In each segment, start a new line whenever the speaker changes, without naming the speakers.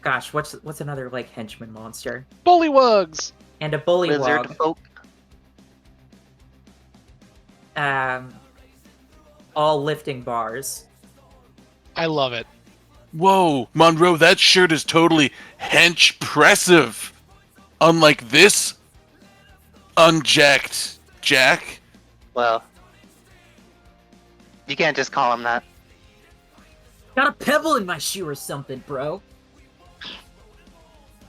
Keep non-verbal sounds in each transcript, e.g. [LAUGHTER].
gosh, what's what's another like henchman monster?
Bullywugs.
And a bullywog.
Lizard folk.
Um, all lifting bars.
I love it.
Whoa, Monroe, that shirt is totally hench pressive. Unlike this unjacked Jack.
Well, you can't just call him that.
Got a pebble in my shoe or something, bro.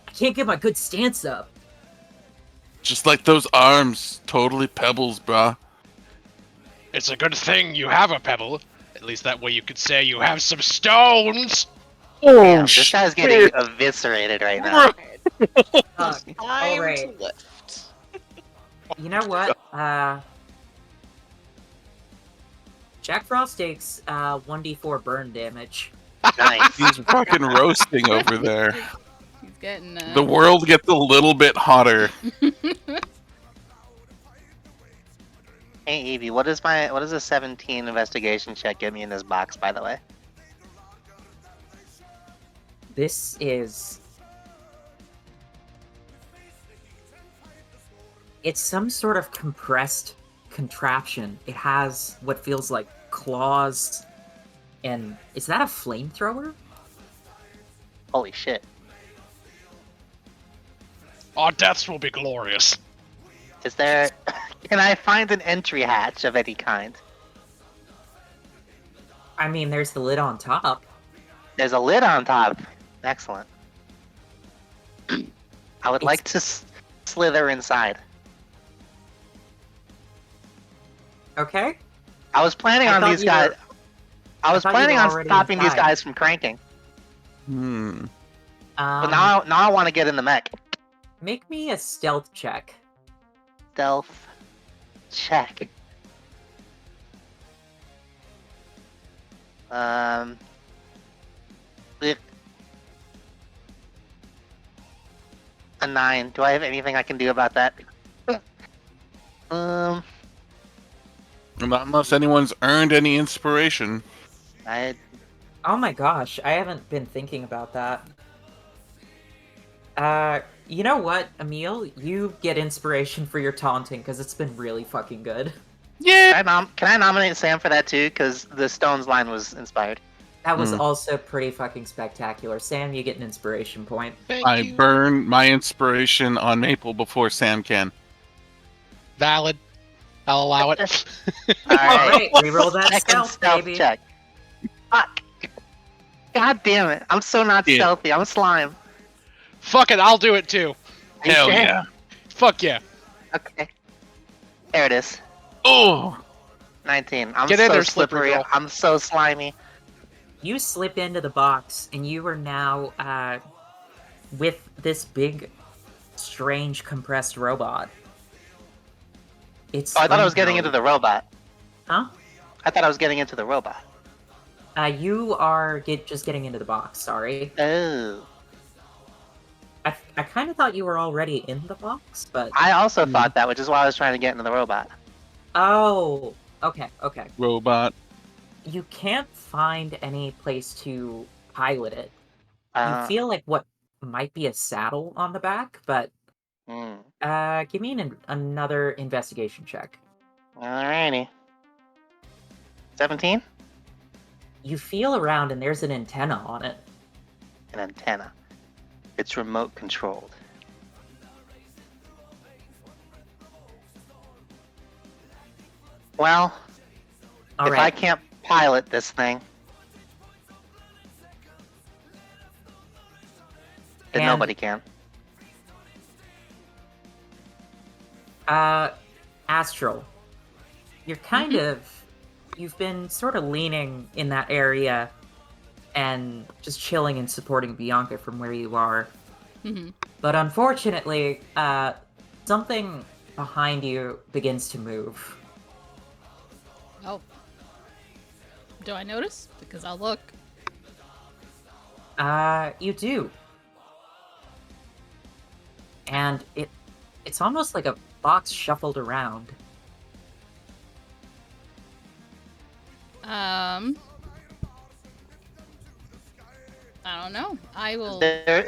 I can't get my good stance up.
Just like those arms, totally pebbles, brah.
It's a good thing you have a pebble. At least that way you could say you have some stones.
Damn, this guy's getting eviscerated right now.
Fuck.
Time to
Alright.
lift.
You know what? Uh, Jack Frost takes uh, 1d4 burn damage.
Nice.
He's fucking roasting over there.
He's getting uh, [LAUGHS]
The world gets a little bit hotter.
Hey Evie, what is my what does a 17 investigation check get me in this box? By the way,
This is. It's some sort of compressed contraption. It has what feels like claws. And is that a flamethrower?
holy shit!
Our deaths will be glorious.
Is there? [LAUGHS] Can I find an entry hatch of any kind?
I mean, there's the lid on top.
There's a lid on top. Excellent. I would
It's-
like to s- slither inside.
Okay.
I was planning
I
on
thought
these
you were-
guys. I was
thought you
planning
were
on
already
stopping these
inside.
guys from cranking,
Hmm.
Um,
but now now I want to get in the mech.
Make me a stealth check.
Stealth check. Um. eh. A nine. Do I have anything I can do about that? [LAUGHS] um,
Not unless anyone's earned any inspiration.
I
Oh my gosh, I haven't been thinking about that. Uh, you know what, Emil? You get inspiration for your taunting because it's been really fucking good.
Yeah.
can I, nom- can I nominate Sam for that too? Because the Stones line was inspired.
That was
Mm.
also pretty fucking spectacular. Sam, you get an inspiration point.
Thank
I
you.
burn my inspiration on Maple before Sam can.
Valid. I'll allow it. [LAUGHS]
All
All
Oh, right.
right, reroll that
Second
stealth,
stealth
baby.
check. Fuck. God damn it! I'm so not
Yeah.
stealthy. I'm slime.
Fuck it, I'll do it too.
Are you
Hell
sure?
yeah.
Fuck yeah.
Okay. There it is.
Oh,
19. I'm
Get
so
in there, slippery
slippery.
girl.
I'm so slimy.
You slip into the box, and you are now uh, with this big, strange compressed robot. It's.
Oh, I thought I was getting into
flamethrower.
the robot.
Huh?
I thought I was getting into the robot.
Uh, you are get just getting into the box. Sorry.
Oh.
I, I kind of thought you were already in the box, but
I
Hmm.
also thought that, which is why I was trying to get into the robot.
oh, okay, okay.
robot.
You can't find any place to pilot it.
Uh,
you feel like what might be a saddle on the back, but
mm.
uh, give me an, another investigation check.
Alrighty. 17?
You feel around and there's an antenna on it.
An antenna. It's remote controlled. Well,
All
if
right,
I can't pilot this thing, then
And-
nobody can.
uh, Astral, you're kind
Mm-hmm.
of you've been sort of leaning in that area and just chilling and supporting Bianca from where you are.
mhm.
But unfortunately, uh, something behind you begins to move.
Oh. Do I notice? Because I'll look.
Uh, you do. And it it's almost like a box shuffled around.
Um. I don't know. I will.
There